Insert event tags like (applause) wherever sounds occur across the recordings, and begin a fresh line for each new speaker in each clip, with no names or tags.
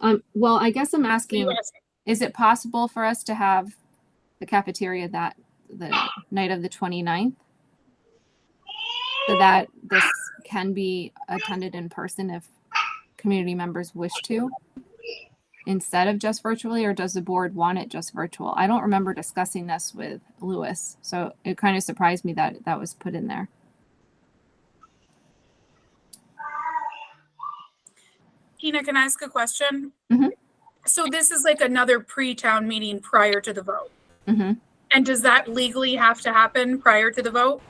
Um, well, I guess I'm asking, is it possible for us to have the cafeteria that, the night of the 29th? So that this can be attended in person if community members wish to? Instead of just virtually, or does the board want it just virtual? I don't remember discussing this with Lewis, so it kind of surprised me that that was put in there.
Tina, can I ask a question?
Mhm.
So this is like another pre-town meeting prior to the vote.
hmm
And does that legally have to happen prior to the vote?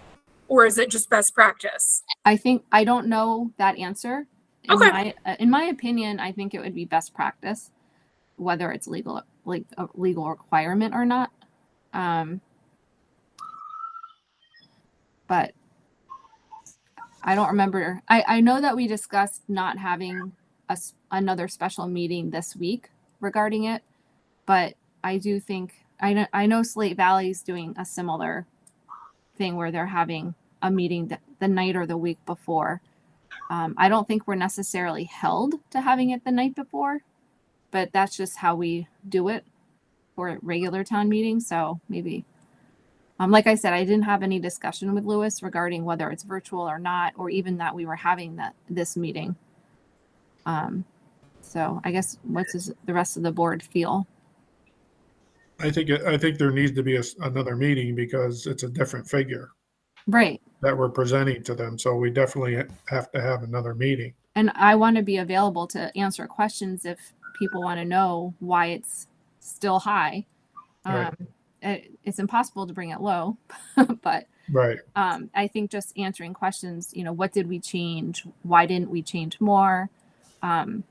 Or is it just best practice?
I think I don't know that answer. In
Okay.
My, uh, in my opinion, I think it would be best practice, whether it's legal, like a legal requirement or not. Um, but I don't remember. I, I know that we discussed not having a, s- another special meeting this week regarding it, but I do think I know, I know Slate Valley's doing a similar thing where they're having a meeting the, the night or the week before. Um, I don't think we're necessarily held to having it the night before, but that's just how we do it for a regular town meetings. So maybe, um, like I said, I didn't have any discussion with Lewis regarding whether it's virtual or not, or even that we were having that this meeting. Um, so I guess what does the rest of the board feel?
I think, it- I think there needs to be a s another meeting because it's a different figure
Right.
that we're presenting to them. So we definitely have to have another meeting.
And I want to be available to answer questions if people want to know why it's still high.
Right.
Um, it, it's impossible to bring it low, (laughs) but
Right,
um, I think just answering questions, you know, what did we change? Why didn't we change more? Um,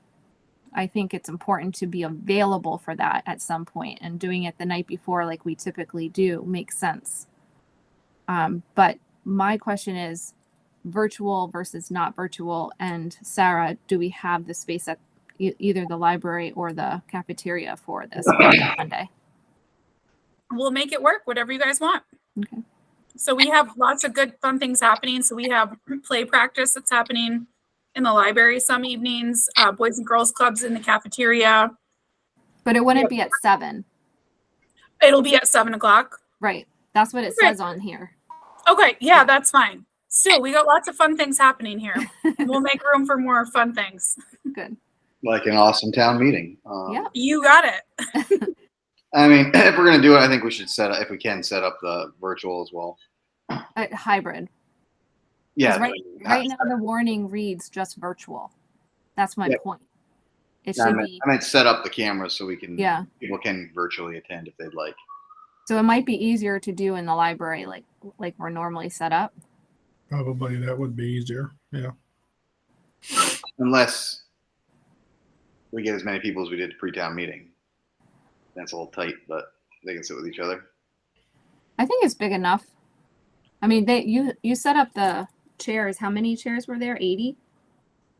I think it's important to be available for that at some point, and doing it the night before, like we typically do, makes sense. Um, but my question is virtual versus not virtual. And Sarah, do we have the space at e- either the library or the cafeteria for this Monday?
We'll make it work, whatever you guys want.
Okay.
So we have lots of good, fun things happening. So we have play practice that's happening in the library some evenings, uh, Boys and Girls Clubs in the cafeteria.
But it wouldn't be at seven,
It'll be at seven o'clock.
right? That's what it
Right.
says on here.
Okay, yeah, that's fine. Still, we got lots of fun things happening here. We'll make room for more fun things.
Good.
like an awesome town meeting. Um,
Yeah.
You got it.
I mean, (clears throat) if we're gonna do it, I think we should set up if we can set up the virtual as well.
Uh, hybrid.
Yeah.
right-
I-
Right now, the warning reads just virtual. That's my
Yeah.
point. It
I,
should
meant,
be,
I meant set up the cameras so we can.
yeah.
People can virtually attend if they'd like.
So it might be easier to do in the library, like, like we're normally set up.
probably that would be easier, yeah.
Unless we get as many people as we did pre-town meeting. That's a little tight, but they can sit with each other.
I think it's big enough. I mean, they, you, you set up the chairs. How many chairs were there? Eighty?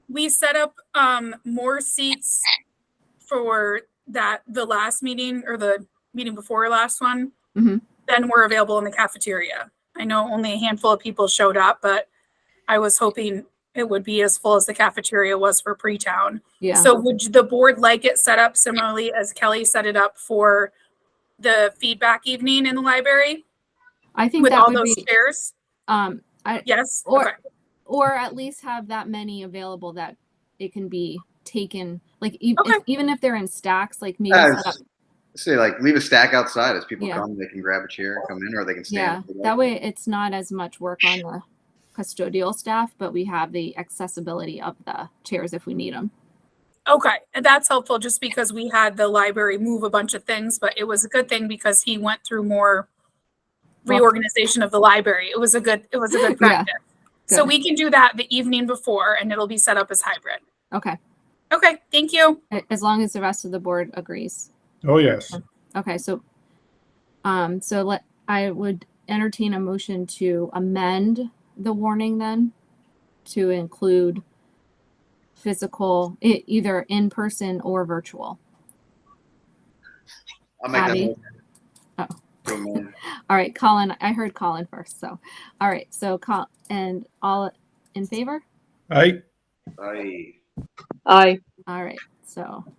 We set up um more seats for that the last meeting or the meeting before last one.
Mhm.
Then we're available in the cafeteria. I know only a handful of people showed up, but I was hoping it would be as full as the cafeteria was for pre-town.
Yeah.
So would you- the board like it set up similarly as Kelly set it up for the feedback evening in the library
I think
with
that
all
would
those
be,
chairs?
um,
Yes.
Or-
Okay.
or at least have that many available that it can be taken, like e-
Okay.
if- even if they're in stacks, like maybe
Yeah,
set up.
Uh, Say like leave a stack outside as people
Yeah.
come. They can grab a chair and come in, or they can
Yeah,
stand.
that way it's not as much work on the custodial staff, but we have the accessibility of the chairs if we need them.
Okay, and that's helpful just because we had the library move a bunch of things, but it was a good thing because he went through more
Well-
reorganization of the library. It was a good, it was a good
Yeah,
practice. So
good.
we can do that the evening before and it'll be set up as hybrid.
Okay,
Okay, thank you.
a- as long as the rest of the board agrees.
Oh, yes.
Okay, so, um, so let, I would entertain a motion to amend the warning then to include physical, e- either in person or virtual.
I'll make that.
Abby.
motion.
Oh.
Go, man.
All right, Colin, I heard Colin first, so, all right, so Col, and all in favor?
I,
Aye.
Aye.
All right, so